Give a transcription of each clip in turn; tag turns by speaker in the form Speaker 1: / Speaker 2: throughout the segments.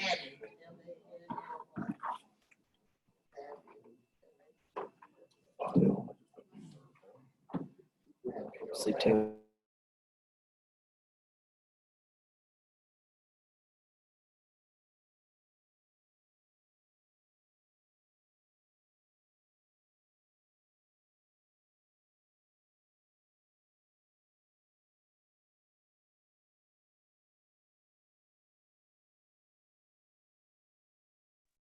Speaker 1: Madden.
Speaker 2: Sleep too.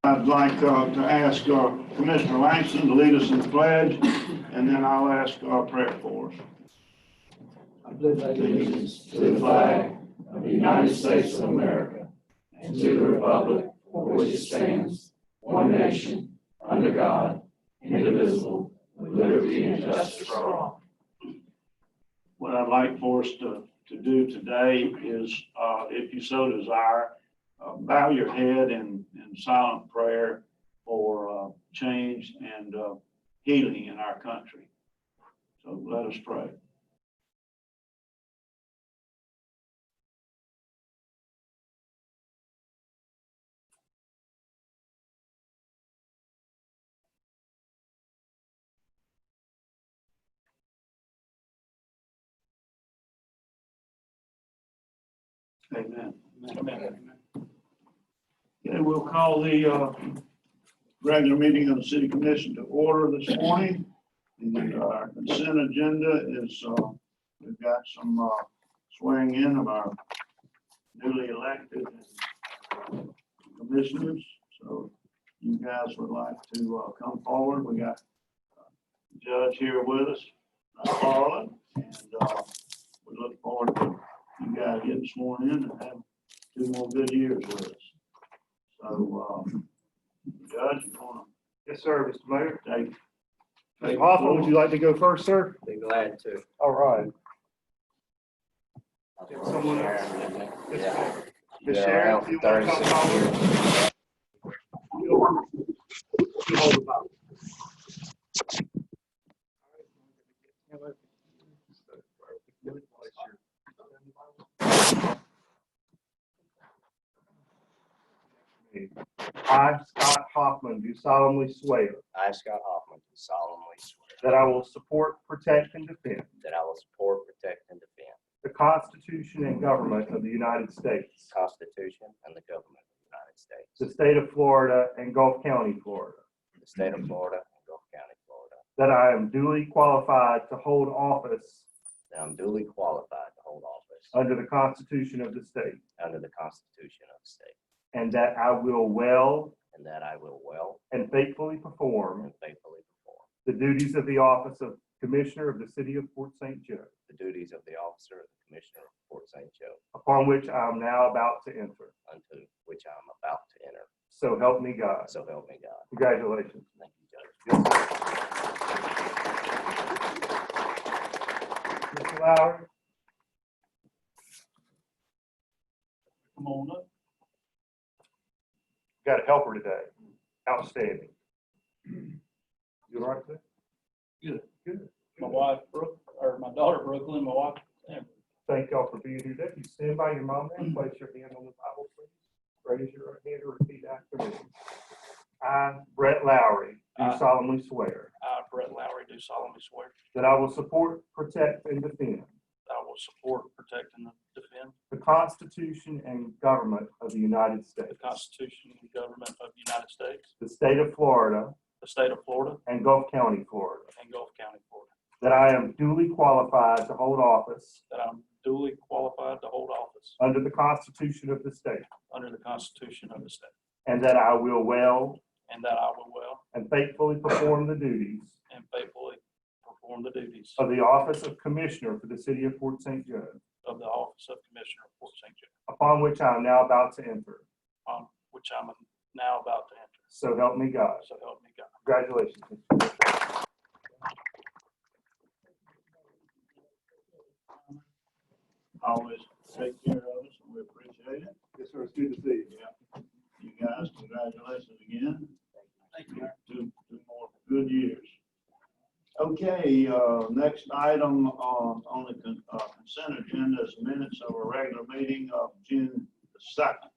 Speaker 3: I'd like uh, to ask uh, Commissioner Langston to lead us in the pledge, and then I'll ask our prayer for us.
Speaker 4: I pledge allegiance to the flag of the United States of America and to the republic for which it stands, one nation, under God, indivisible, with liberty and justice for all.
Speaker 3: What I'd like for us to, to do today is, uh, if you so desire, uh, bow your head in, in silent prayer for uh, change and uh, healing in our country. So let us pray. Amen. Amen. Okay, we'll call the uh, regular meeting of the city commission to order this morning. And uh, our consent agenda is, uh, we've got some uh, swearing in of our newly elected uh, commissioners. So you guys would like to uh, come forward. We got uh, Judge here with us, uh, Carla. And uh, we look forward to you guys getting sworn in and have two more good years with us. So, um, Judge, you wanna
Speaker 5: Yes, sir, Mr. Mayor.
Speaker 3: take?
Speaker 5: Mr. Hoffman, would you like to go first, sir?
Speaker 2: Be glad to.
Speaker 5: All right. Someone else?
Speaker 2: Yeah.
Speaker 5: Ms.
Speaker 2: Yeah,
Speaker 5: Sharon,
Speaker 2: around
Speaker 5: you want to come
Speaker 2: 36.
Speaker 5: forward? I, Scott Hoffman, do solemnly swear
Speaker 2: I, Scott Hoffman, do solemnly swear
Speaker 5: that I will support, protect, and defend
Speaker 2: that I will support, protect, and defend
Speaker 5: the Constitution and government of the United States,
Speaker 2: the Constitution and the government of the United States,
Speaker 5: the state of Florida, and Gulf County, Florida,
Speaker 2: the state of Florida, and Gulf County, Florida,
Speaker 5: that I am duly qualified to hold office
Speaker 2: that I'm duly qualified to hold office
Speaker 5: under the Constitution of the state,
Speaker 2: under the Constitution of the state,
Speaker 5: and that I will well
Speaker 2: and that I will well
Speaker 5: and faithfully perform
Speaker 2: and faithfully perform
Speaker 5: the duties of the office of Commissioner of the City of Fort St. Joe,
Speaker 2: the duties of the officer of the Commissioner of Fort St. Joe,
Speaker 5: upon which I am now about to enter.
Speaker 2: unto which I am about to enter.
Speaker 5: So help me God.
Speaker 2: So help me God.
Speaker 5: Congratulations.
Speaker 2: Thank you, Judge.
Speaker 5: Mr. Lowry,
Speaker 3: Come on up.
Speaker 5: got a helper today. Outstanding. You all right there?
Speaker 6: Good.
Speaker 5: Good.
Speaker 6: my wife, Brook, or my daughter Brooklyn, my wife, Amber.
Speaker 5: Thank y'all for being here. If you stand by your mom and place your hand on the Bible, please. Raise your right hand and repeat after me. I, Brett Lowry, do
Speaker 6: I-
Speaker 5: solemnly swear
Speaker 6: I, uh, Brett Lowry, do solemnly swear
Speaker 5: that I will support, protect, and defend
Speaker 6: that I will support, protect, and defend
Speaker 5: the Constitution and government of the United
Speaker 6: the
Speaker 5: States,
Speaker 6: Constitution and government of the United States,
Speaker 5: the state of Florida,
Speaker 6: the state of Florida,
Speaker 5: and Gulf County, Florida,
Speaker 6: and Gulf County, Florida,
Speaker 5: that I am duly qualified to hold office
Speaker 6: that I'm duly qualified to hold office
Speaker 5: under the Constitution of the state,
Speaker 6: under the Constitution of the state,
Speaker 5: and that I will well
Speaker 6: and that I will well
Speaker 5: and faithfully perform the duties
Speaker 6: and faithfully perform the duties
Speaker 5: of the office of Commissioner for the city of Fort St. Joe,
Speaker 6: of the office of Commissioner of Fort St. Joe,
Speaker 5: upon which I am now about to enter.
Speaker 6: um, which I'm now about to enter.
Speaker 5: So help me God.
Speaker 6: So help me God.
Speaker 5: Congratulations.
Speaker 3: Always take care of us, and we appreciate it.
Speaker 5: Yes, sir. It's good to see you.
Speaker 3: You guys, congratulations again.
Speaker 6: Thank you.
Speaker 3: Two, two more good years. Okay, uh, next item, uh,
Speaker 5: um,
Speaker 3: on the con- uh, consent agenda is minutes of a regular meeting of June the second.